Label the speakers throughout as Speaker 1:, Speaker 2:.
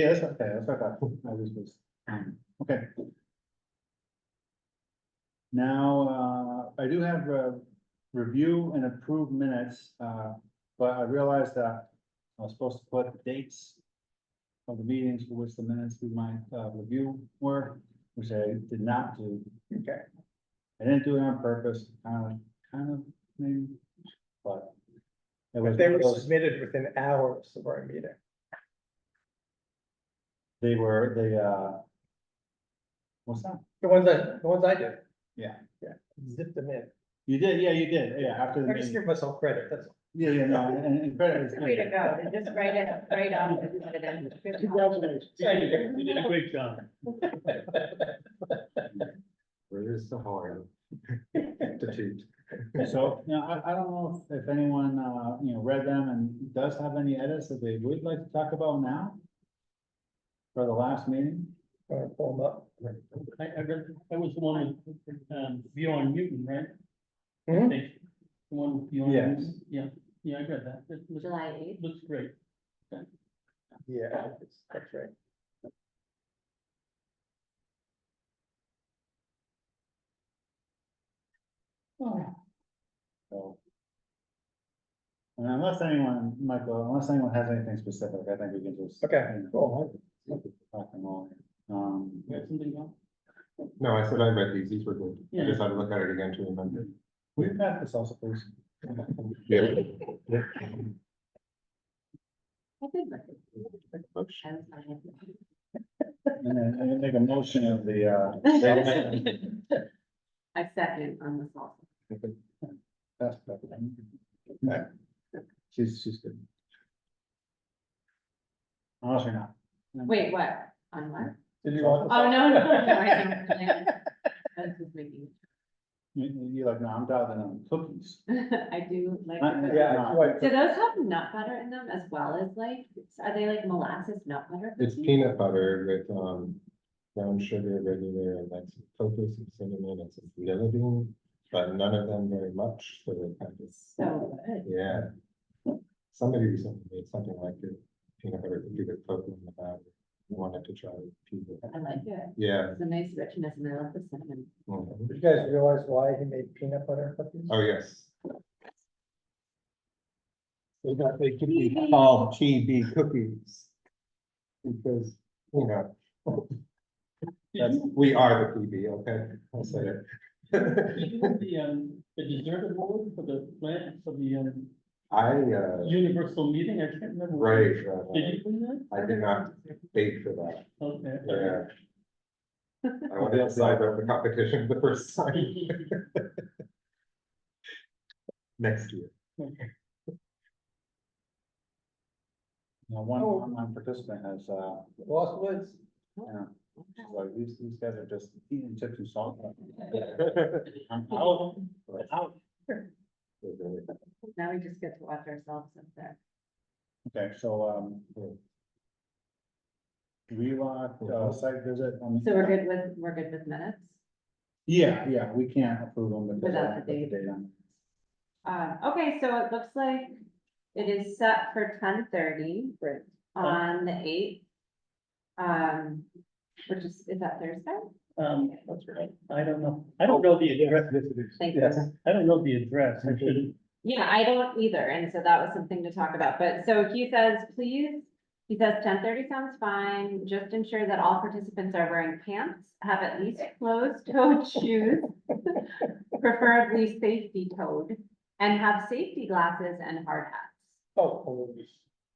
Speaker 1: Yeah, that's okay, that's okay, I was just, okay. Now, uh, I do have a review and approve minutes, uh, but I realized that I was supposed to put the dates of the meetings for which the minutes we might, uh, review were, which I did not do. Okay. I didn't do it on purpose, kind of, kind of, maybe, but. it was
Speaker 2: They
Speaker 1: one
Speaker 2: were
Speaker 1: of those-
Speaker 2: submitted within hours of our meeting.
Speaker 1: They were, they, uh. What's that?
Speaker 2: The ones I, the ones I did.
Speaker 1: Yeah.
Speaker 2: Yeah, zip them in.
Speaker 1: You did, yeah, you did, yeah, after the
Speaker 2: I just
Speaker 1: meeting.
Speaker 2: give myself credit, that's all.
Speaker 1: Yeah, yeah, no, and, and credit is.
Speaker 3: It's a way to go, to just write it, write off and put it in.
Speaker 2: You
Speaker 3: did a
Speaker 2: great job.
Speaker 4: Where is the harm? To toot.
Speaker 1: So, you know, I, I don't know if if anyone, uh, you know, read them and does have any edits that they would like to talk about now? For the last meeting?
Speaker 2: Gonna pull them up.
Speaker 5: I, I read, that was the one with, um, Bjorn Newton, right?
Speaker 2: Mhm.
Speaker 4: Mm-hmm.
Speaker 5: I think, the one with Bjorn
Speaker 1: Yes.
Speaker 5: Newton, yeah, yeah, I read that, it looks,
Speaker 3: July eighth,
Speaker 5: looks great.
Speaker 2: Yeah, that's- that's right.
Speaker 4: Oh.
Speaker 1: So. And unless anyone, Michael, unless anyone has anything specific, I think we can just.
Speaker 2: Okay,
Speaker 1: you know,
Speaker 2: cool.
Speaker 1: Talk them all. Um,
Speaker 5: You have something else?
Speaker 4: No, I said I read these, these were good. I
Speaker 5: Yeah.
Speaker 4: just had to look at it again to remember.
Speaker 1: we've got this also, please.
Speaker 4: Yeah.
Speaker 3: I did look at it.
Speaker 4: Motion.
Speaker 3: I was on it.
Speaker 1: And then, and then make a motion of the, uh.
Speaker 3: I second on the salt.
Speaker 1: That's better. Okay. She's, she's good. Unless you're not.
Speaker 3: Wait, what? On what?
Speaker 2: Did you want?
Speaker 3: Oh, no, no, no, I know. I was just making.
Speaker 1: You, you're like, no, I'm diving on cookies.
Speaker 3: I do like.
Speaker 1: Uh,
Speaker 3: the-
Speaker 2: Yeah, I-
Speaker 3: Do those have nut butter in them as well as like, are they like molasses nut butter?
Speaker 4: It's
Speaker 3: cookies?
Speaker 4: peanut butter with, um, brown sugar, regular, and that's focus and cinnamon, and some vanilla bean. But none of them very much, so they kind of,
Speaker 3: So good.
Speaker 4: yeah. Somebody recently made something like it, peanut butter cookie with cocoa in the batter. Wanted to try pizza.
Speaker 3: I like it.
Speaker 4: Yeah.
Speaker 3: It's a nice richness and I love the cinnamon.
Speaker 4: mhm.
Speaker 2: Did you guys realize why he made peanut butter cookies?
Speaker 4: Oh, yes. They got, they could be called GB cookies. Because, you know, that's, we are the PB, okay? I'll say it.
Speaker 5: Did you have the, um, the dessert award for the plant, for the, um,
Speaker 4: I, uh,
Speaker 5: universal meeting, I can't remember. what it
Speaker 4: right,
Speaker 5: was.
Speaker 4: uh,
Speaker 5: Did you win
Speaker 4: I did not bake for that,
Speaker 5: that? Okay.
Speaker 4: yeah. I went outside of the competition the first time next year.
Speaker 1: You know, one
Speaker 2: Oh.
Speaker 1: online participant has, uh,
Speaker 2: Lost Woods.
Speaker 1: she's like, these, these guys are just eating chips and salt. I'm out, I'm
Speaker 3: Now
Speaker 1: out.
Speaker 3: we just get to watch ourselves up there.
Speaker 1: Okay, so, um. Relock, uh, site visit. um,
Speaker 3: So we're good with, we're good with minutes.
Speaker 1: Yeah, yeah, we can't approve them. because
Speaker 3: Without
Speaker 1: I
Speaker 3: the
Speaker 1: put
Speaker 3: date.
Speaker 1: on it.
Speaker 3: Um, okay, so it looks like it is set for ten thirty
Speaker 2: Right.
Speaker 5: Oh.
Speaker 3: on the eighth. Um, which is, is that Thursday?
Speaker 5: Um, that's right, I don't know, I don't know the address,
Speaker 3: Thank you.
Speaker 2: Yes.
Speaker 5: I don't know the address, I should,
Speaker 3: Yeah, I don't either, and so that was something to talk about, but so he says, please, he says ten thirty sounds fine, just ensure that all participants are wearing pants, have at least closed-toed shoes, preferably safety-toed, and have safety glasses and hard hats.
Speaker 2: Oh, oh, yes.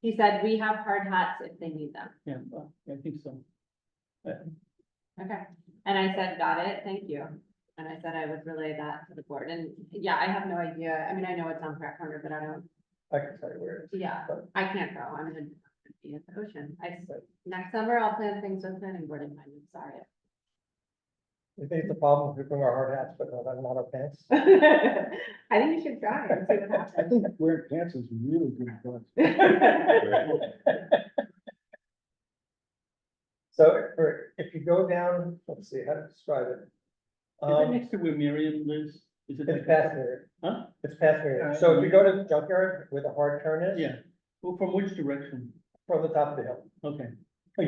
Speaker 3: He said, we have hard hats if they need them,
Speaker 5: yeah, well, I think so.
Speaker 3: okay, and I said, got it, thank you. And I said I would relay that to the board, and yeah, I have no idea, I mean, I know it's on Pratt Corner, but I don't
Speaker 2: I can tell you where it is.
Speaker 3: Yeah,
Speaker 2: But-
Speaker 3: I can't go, I'm gonna be in the ocean, I, s- next summer I'll plan things with planning board in mind, I'm
Speaker 2: You think it's a problem if we bring our hard hats, but not not our pants?
Speaker 3: sorry. I think you should try and see what
Speaker 1: I
Speaker 3: happens.
Speaker 1: think wearing pants is really good. advice.
Speaker 2: So or if you go down, let's see, how to describe it.
Speaker 5: Is it
Speaker 2: Um,
Speaker 5: next to where Miriam lives? Is it?
Speaker 2: it's past Mary,
Speaker 5: Huh?
Speaker 2: it's past Mary. So if you go to the junkyard where the hard turn is,
Speaker 5: Yeah, well, from which direction?
Speaker 2: from the top of the hill,
Speaker 5: Okay,